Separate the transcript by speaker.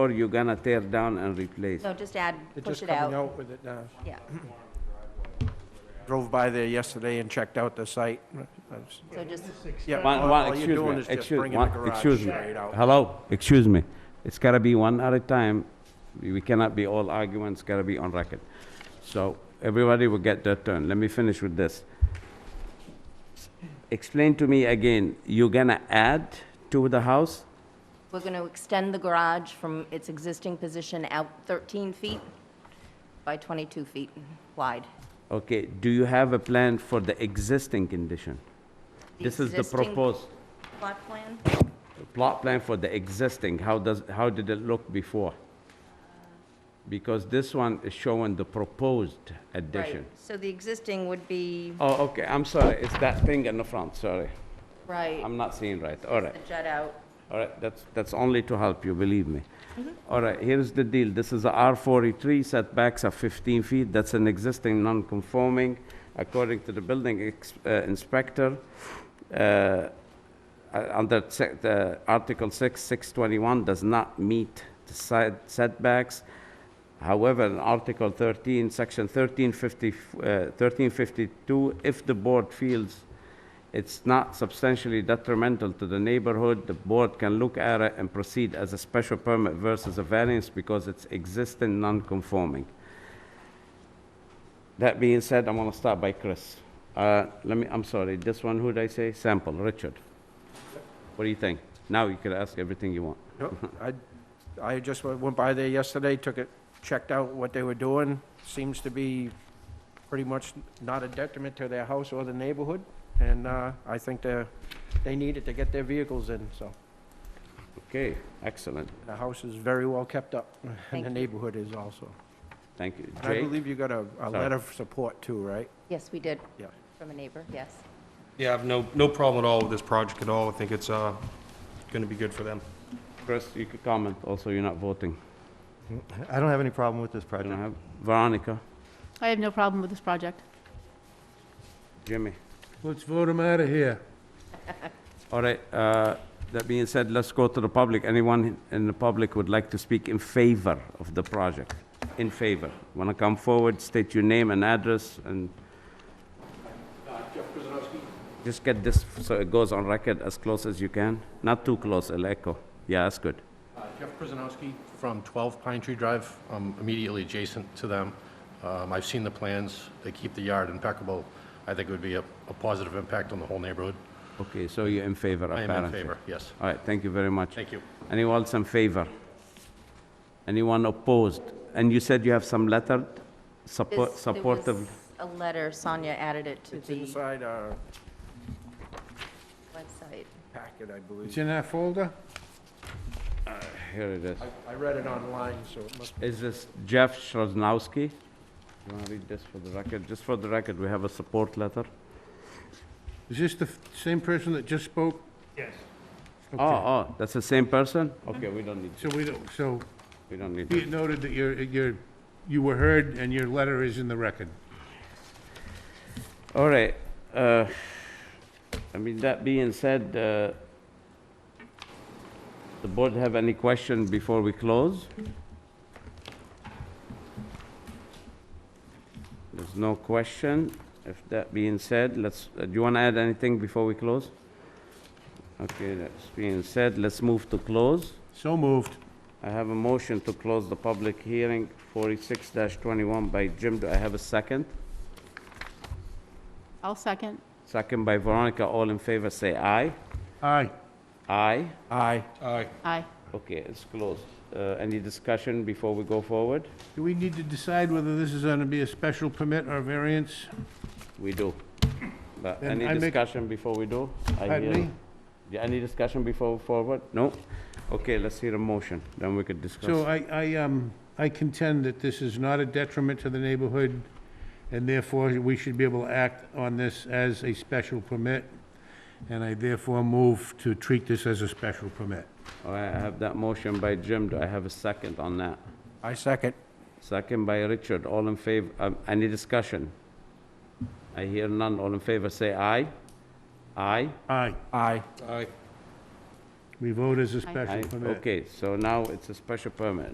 Speaker 1: Or you're gonna tear down and replace?
Speaker 2: No, just add,
Speaker 3: They're
Speaker 2: push
Speaker 3: just
Speaker 2: it
Speaker 3: coming
Speaker 2: out.
Speaker 3: out with it uh, now.
Speaker 2: Yeah,
Speaker 3: Drove by there yesterday and checked out the site. I was-
Speaker 2: so just,
Speaker 3: Yeah,
Speaker 1: One,
Speaker 3: all-
Speaker 1: one,
Speaker 3: all you're
Speaker 1: excuse
Speaker 3: doing
Speaker 1: me,
Speaker 3: is just
Speaker 1: excuse,
Speaker 3: bringing the
Speaker 1: one,
Speaker 3: garage
Speaker 1: excuse me.
Speaker 3: straight out.
Speaker 1: Hello, excuse me. It's gotta be one at a time. We we cannot be all arguments, gotta be on record. So everybody will get their turn. Let me finish with this. Explain to me again, you're gonna add to the house?
Speaker 2: we're going to extend the garage from its existing position out 13 feet by 22 feet wide.
Speaker 1: Okay, do you have a plan for the existing condition?
Speaker 2: The
Speaker 1: This is the
Speaker 2: existing
Speaker 1: proposed
Speaker 2: Plot plan?
Speaker 1: plot plan for the existing. How does, how did it look before? Because this one is showing the proposed addition.
Speaker 2: Right. So the existing would be,
Speaker 1: Oh, okay, I'm sorry, it's that thing in the front, sorry.
Speaker 2: right,
Speaker 1: I'm not seeing right, all
Speaker 2: the
Speaker 1: right,
Speaker 2: jut out.
Speaker 1: all right, that's, that's only to help you, believe me. All right, here's the deal, this is a R43, setbacks are 15 feet, that's an existing non-conforming, according to the building ex- uh, inspector, uh, uh, under se- the Article 6, 621 does not meet the side setbacks. However, in Article 13, Section 1350, uh, 1352, if the board feels it's not substantially detrimental to the neighborhood, the board can look at it and proceed as a special permit versus a variance because it's existing non-conforming. That being said, I'm gonna start by Chris. Uh, Let me, I'm sorry, this one, who'd I say? Sample, Richard. What do you think? Now you can ask everything you want.
Speaker 3: Yep, I, I just went went by there yesterday, took it, checked out what they were doing. Seems to be pretty much not a detriment to their house or the neighborhood. And uh, I think they're, they need it to get their vehicles in, so
Speaker 1: Okay, excellent,
Speaker 3: the house is very well kept up, and
Speaker 2: Thank
Speaker 3: the
Speaker 2: you.
Speaker 3: neighborhood is also.
Speaker 1: thank you.
Speaker 3: And I
Speaker 1: Jay?
Speaker 3: believe you got a, a
Speaker 1: Sorry.
Speaker 3: letter of support too, right?
Speaker 2: Yes, we did.
Speaker 3: Yeah.
Speaker 2: From a neighbor, yes.
Speaker 4: Yeah, I have no, no problem at all with this project at all. I think it's, uh, gonna be good for them.
Speaker 1: Chris, you could comment, also you're not voting.
Speaker 5: I don't have any problem with this
Speaker 1: I don't
Speaker 5: project.
Speaker 1: have, Veronica,
Speaker 6: I have no problem with this project.
Speaker 1: Jimmy.
Speaker 7: Let's vote him out of here.
Speaker 1: All right, uh, that being said, let's go to the public. Anyone in the public would like to speak in favor of the project? In favor? Want to come forward, state your name and address, and... Just get this, so it goes on record as close as you can. Not too close, it'll echo. Yeah, that's good.
Speaker 8: Uh, Jeff Przanowski from 12 Pine Tree Drive, um, immediately adjacent to them. Um, I've seen the plans, they keep the yard impeccable. I think it would be a a positive impact on the whole neighborhood.
Speaker 1: Okay, so you're in favor,
Speaker 8: I am
Speaker 1: apparently?
Speaker 8: in favor, yes.
Speaker 1: All right, thank you very much.
Speaker 8: Thank you.
Speaker 1: Anyone else in favor? Anyone opposed? And you said you have some letter support,
Speaker 2: This- there
Speaker 1: supportive...
Speaker 2: was A letter, Sonia added it to
Speaker 3: It's
Speaker 2: the
Speaker 3: inside our
Speaker 2: website.
Speaker 3: packet, I
Speaker 7: It's
Speaker 3: believe.
Speaker 7: in that folder?
Speaker 1: Here it is.
Speaker 3: I, I read it online, so it must
Speaker 1: Is this Jeff Schroznowski? You want to read this for the record? Just for the record, we have a support letter.
Speaker 7: Is this the f- same person that just spoke?
Speaker 1: Oh, oh, that's the same person? Okay, we don't need,
Speaker 7: So we don't, so
Speaker 1: we don't need.
Speaker 7: be it noted that you're, you're, you were heard and your letter is in the record.
Speaker 1: All right, uh, I mean, that being said, uh, the board have any question before we close? There's no question. If that being said, let's, uh, do you want to add anything before we close? Okay, that's being said, let's move to close.
Speaker 7: So moved.
Speaker 1: I have a motion to close the public hearing, 46-21 by Jim. Do I have a second?
Speaker 6: I'll second.
Speaker 1: Second by Veronica. All in favor, say aye.
Speaker 7: Aye.
Speaker 1: Aye.
Speaker 3: Aye.
Speaker 4: Aye.
Speaker 6: Aye.
Speaker 1: Okay, it's closed. Uh, Any discussion before we go forward?
Speaker 7: Do we need to decide whether this is gonna be a special permit or a variance?
Speaker 1: We do. But
Speaker 7: Then
Speaker 1: any
Speaker 7: I make-
Speaker 1: discussion before we do? I
Speaker 7: Pardon
Speaker 1: hear-
Speaker 7: me?
Speaker 1: Yeah, any discussion before forward? No? Okay, let's hear a motion, then we could
Speaker 7: So
Speaker 1: discuss.
Speaker 7: I, I, um, I contend that this is not a detriment to the neighborhood, and therefore we should be able to act on this as a special permit, and I therefore move to treat this as a special permit.
Speaker 1: All right, I have that motion by Jim. Do I have a second on that?
Speaker 3: I second.
Speaker 1: Second by Richard. All in favor, um, any discussion? I hear none. All in favor, say aye. Aye.
Speaker 7: Aye.
Speaker 3: Aye.
Speaker 4: Aye.
Speaker 7: We vote as a
Speaker 1: I-
Speaker 7: special permit.
Speaker 1: Okay, so now it's a special permit.